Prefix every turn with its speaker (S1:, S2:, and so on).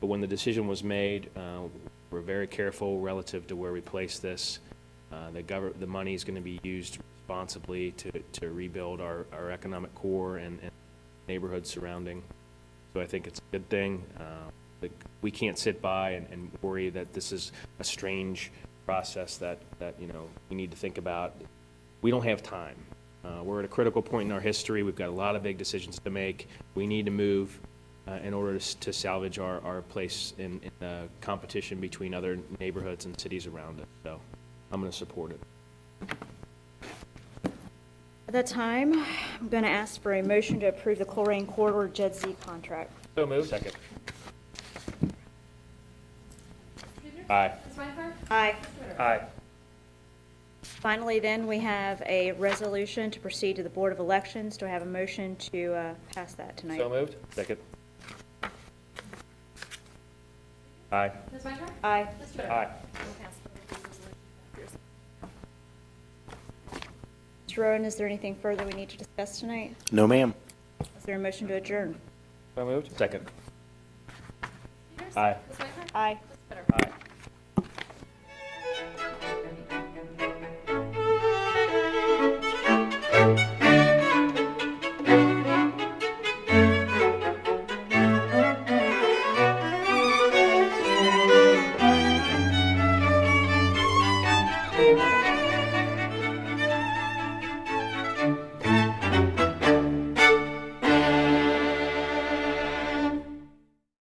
S1: when the decision was made, uh, we're very careful relative to where we place this. Uh, The govern, the money is going to be used responsibly to, to rebuild our, our economic core and and neighborhood surrounding. So I think it's a good thing. Uh, like, We can't sit by and- and worry that this is a strange process that, that, you know, we need to think about. We don't have time. Uh, We're at a critical point in our history. We've got a lot of big decisions to make. We need to move uh, in order to s- to salvage our, our place in, in the competition between other neighborhoods and cities around us. So I'm going to support it.
S2: At that time, I'm going to ask for a motion to approve the Colerain Corridor Jed Z contract.
S1: So moved. Second. Aye.
S3: Ms. Meinhardt?
S2: Aye.
S1: Aye.
S2: Finally, then, we have a resolution to proceed to the Board of Elections. Do I have a motion to uh, pass that tonight?
S1: moved. Second. Aye.
S3: Ms. Meinhardt?
S2: Aye.
S3: Ms. Twitter?
S1: Aye.
S3: We'll pass the resolution.
S2: Mr. Rowan, is there anything further we need to discuss tonight?
S4: No, ma'am.
S2: Is there a motion to adjourn?
S1: So moved. Second.
S3: Peters?
S1: Aye.
S3: Ms. Meinhardt?
S2: Aye.
S3: Ms. Twitter?
S1: Aye.
S4: Thank you.